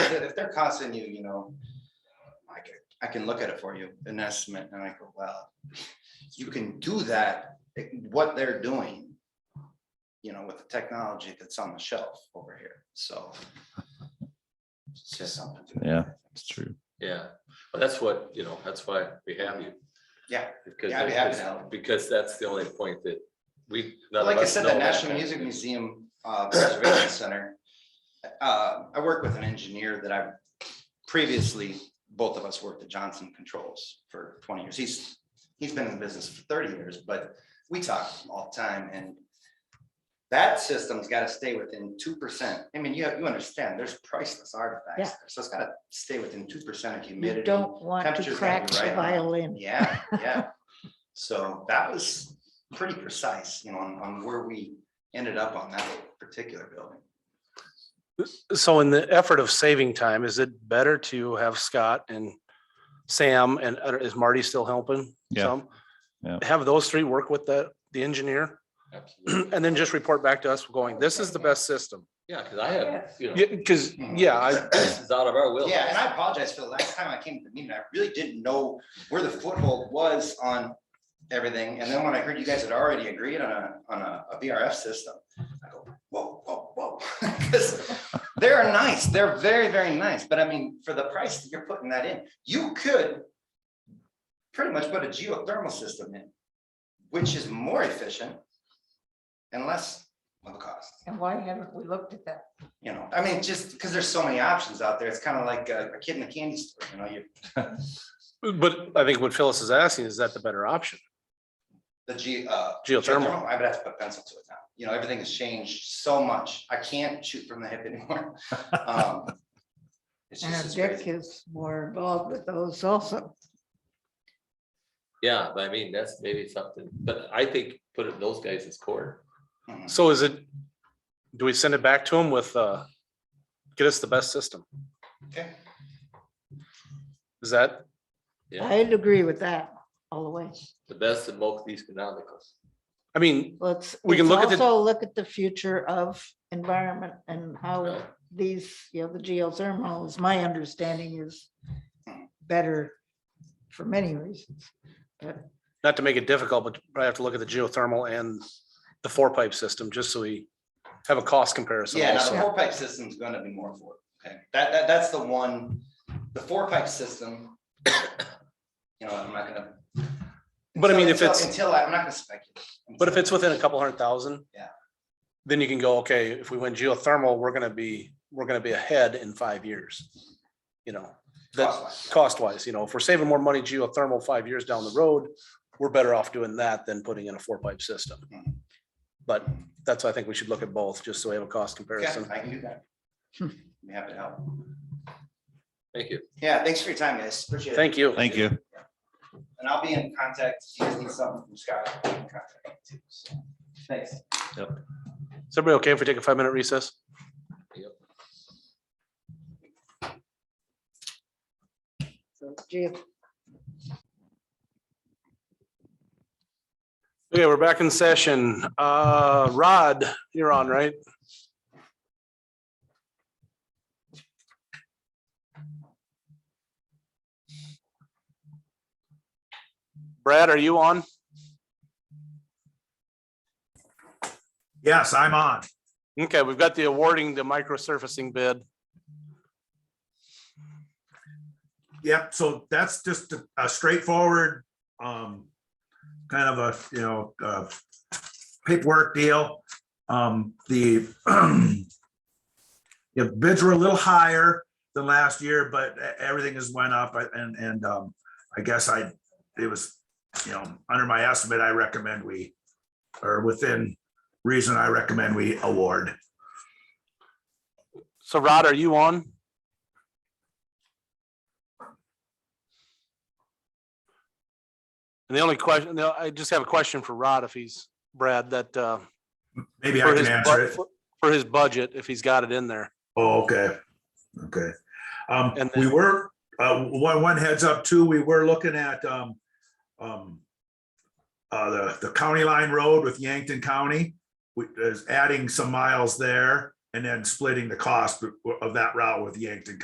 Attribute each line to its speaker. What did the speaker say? Speaker 1: they're- if they're costing you, you know, I can, I can look at it for you, an estimate, and I go, well, you can do that, it- what they're doing, you know, with the technology that's on the shelf over here, so. It's just something. to-
Speaker 2: Yeah. It's true.
Speaker 3: Yeah, but that's what, you know, that's why we have you.
Speaker 1: Yeah.
Speaker 3: Because,
Speaker 1: Yeah, I'd be happy to
Speaker 3: that's-
Speaker 1: help.
Speaker 3: because that's the only point that we. none of
Speaker 1: Like I
Speaker 3: us
Speaker 1: said,
Speaker 3: know
Speaker 1: the
Speaker 3: that.
Speaker 1: National Music Museum uh, Preservation Center, uh, I work with an engineer that I previously, both of us worked at Johnson Controls for twenty years. He's, he's been in business for thirty years, but we talk all the time and that system's gotta stay within two percent. I mean, you have, you understand, there's priceless artifacts,
Speaker 4: Yeah.
Speaker 1: there, so it's gotta stay within two percent of humidity.
Speaker 4: You don't want to
Speaker 1: temperature's gotta
Speaker 4: crack
Speaker 1: be
Speaker 4: the
Speaker 1: right on.
Speaker 4: violin.
Speaker 1: Yeah, yeah. So that was pretty precise, you know, on, on where we ended up on that particular building.
Speaker 5: So in the effort of saving time, is it better to have Scott and Sam and uh, is Marty still helping?
Speaker 2: Yeah,
Speaker 5: some?
Speaker 2: yeah.
Speaker 5: Have those three work with the, the engineer
Speaker 3: Absolutely.
Speaker 5: and then just report back to us going, this is the best system.
Speaker 3: Yeah, because I had, you know,
Speaker 5: Yeah, because, yeah, I,
Speaker 3: this is out of our will.
Speaker 1: Yeah, and I apologize for the last time I came to the meeting, I really didn't know where the foothold was on everything. And then when I heard you guys had already agreed on a, on a, a VRF system, I go, whoa, whoa, whoa. 'Cause They're nice, they're very, very nice, but I mean, for the price that you're putting that in, you could pretty much put a geothermal system in, which is more efficient and less of a cost.
Speaker 6: And why haven't we looked at that?
Speaker 1: you know, I mean, just because there's so many options out there, it's kind of like a a kid in a candy store, you know, you,
Speaker 5: but I think what Phyllis is asking, is that the better option?
Speaker 1: the G, uh.
Speaker 5: Geothermal.
Speaker 1: I would have to put pencil to it now, you know, everything has changed so much, I can't shoot from the hip anymore. Um, It's just,
Speaker 4: And
Speaker 1: it's
Speaker 4: Dick
Speaker 1: crazy.
Speaker 4: is more involved with those also.
Speaker 3: Yeah, but I mean, that's maybe something, but I think put it in those guys' court.
Speaker 1: Mhm.
Speaker 5: So is it, do we send it back to him with, uh, get us the best system?
Speaker 1: Okay.
Speaker 5: Is that,
Speaker 3: Yeah,
Speaker 4: I'd agree with that all the way.
Speaker 3: the best and most economical.
Speaker 5: I mean,
Speaker 4: Let's.
Speaker 5: We can
Speaker 4: let's
Speaker 5: look at the-
Speaker 4: Also look at the future of environment and how
Speaker 5: Oh.
Speaker 3: Right.
Speaker 4: these, you know, the geothermal is, my understanding is better for many reasons.
Speaker 5: not to make it difficult, but I have to look at the geothermal and the four pipe system, just so we have a cost comparison.
Speaker 1: Yeah, now
Speaker 5: also.
Speaker 1: the four pipe system is gonna be more affordable, okay, that, that, that's the one, the four pipe system. You know, I'm not gonna.
Speaker 5: But I mean, if
Speaker 1: until-
Speaker 5: it's-
Speaker 1: Until, I- I'm not gonna speculate.
Speaker 5: But if it's within a couple hundred thousand.
Speaker 1: Yeah.
Speaker 5: Then you can go, okay, if we win geothermal, we're gonna be, we're gonna be ahead in five years. You know, that
Speaker 1: Cost-wise, yeah.
Speaker 5: cost wise, you know, if we're saving more money geothermal five years down the road, we're better off doing that than putting in a four pipe system.
Speaker 1: Mhm.
Speaker 5: But that's, why I think we should look at both, just so we have a cost
Speaker 1: Yeah,
Speaker 5: comparison.
Speaker 1: I can do that. Be happy to help.
Speaker 3: Thank you.
Speaker 1: Yeah, thanks for your time, guys. Appreciate it.
Speaker 5: Thank you.
Speaker 2: Thank you.
Speaker 1: And I'll be in contact. If you guys need something from Scott, I'll be in contact too. So, Thanks.
Speaker 5: Is everybody okay if we take a five minute recess?
Speaker 4: So geo-
Speaker 5: Okay, we're back in session. Uh, Rod, you're on, right? Brad, are you on?
Speaker 7: Yes, I'm on.
Speaker 5: Okay, we've got the awarding the micro surfacing bid.
Speaker 7: Yep, so that's just a- a straightforward, um, kind of a, you know, uh, paperwork deal. Um, the yeah, bids were a little higher than last year, but e- everything has went up I- and, and, um, I guess I, it was, you know, under my estimate, I recommend we, or within reason, I recommend we award.
Speaker 5: So Rod, are you on? And the only question, no, I just have a question for Rod if he's, Brad, that, uh,
Speaker 7: Maybe I
Speaker 5: for
Speaker 7: can
Speaker 5: his,
Speaker 7: answer
Speaker 5: bu-
Speaker 7: it.
Speaker 5: for- for his budget, if he's got it in there.
Speaker 7: Oh, okay, okay. Um,
Speaker 5: And
Speaker 7: we
Speaker 5: then-
Speaker 7: were, uh, one, one heads up too, we were looking at, um, um, uh, the, the county line road with Yankton County, which is adding some miles there and then splitting the cost of that route with Yankton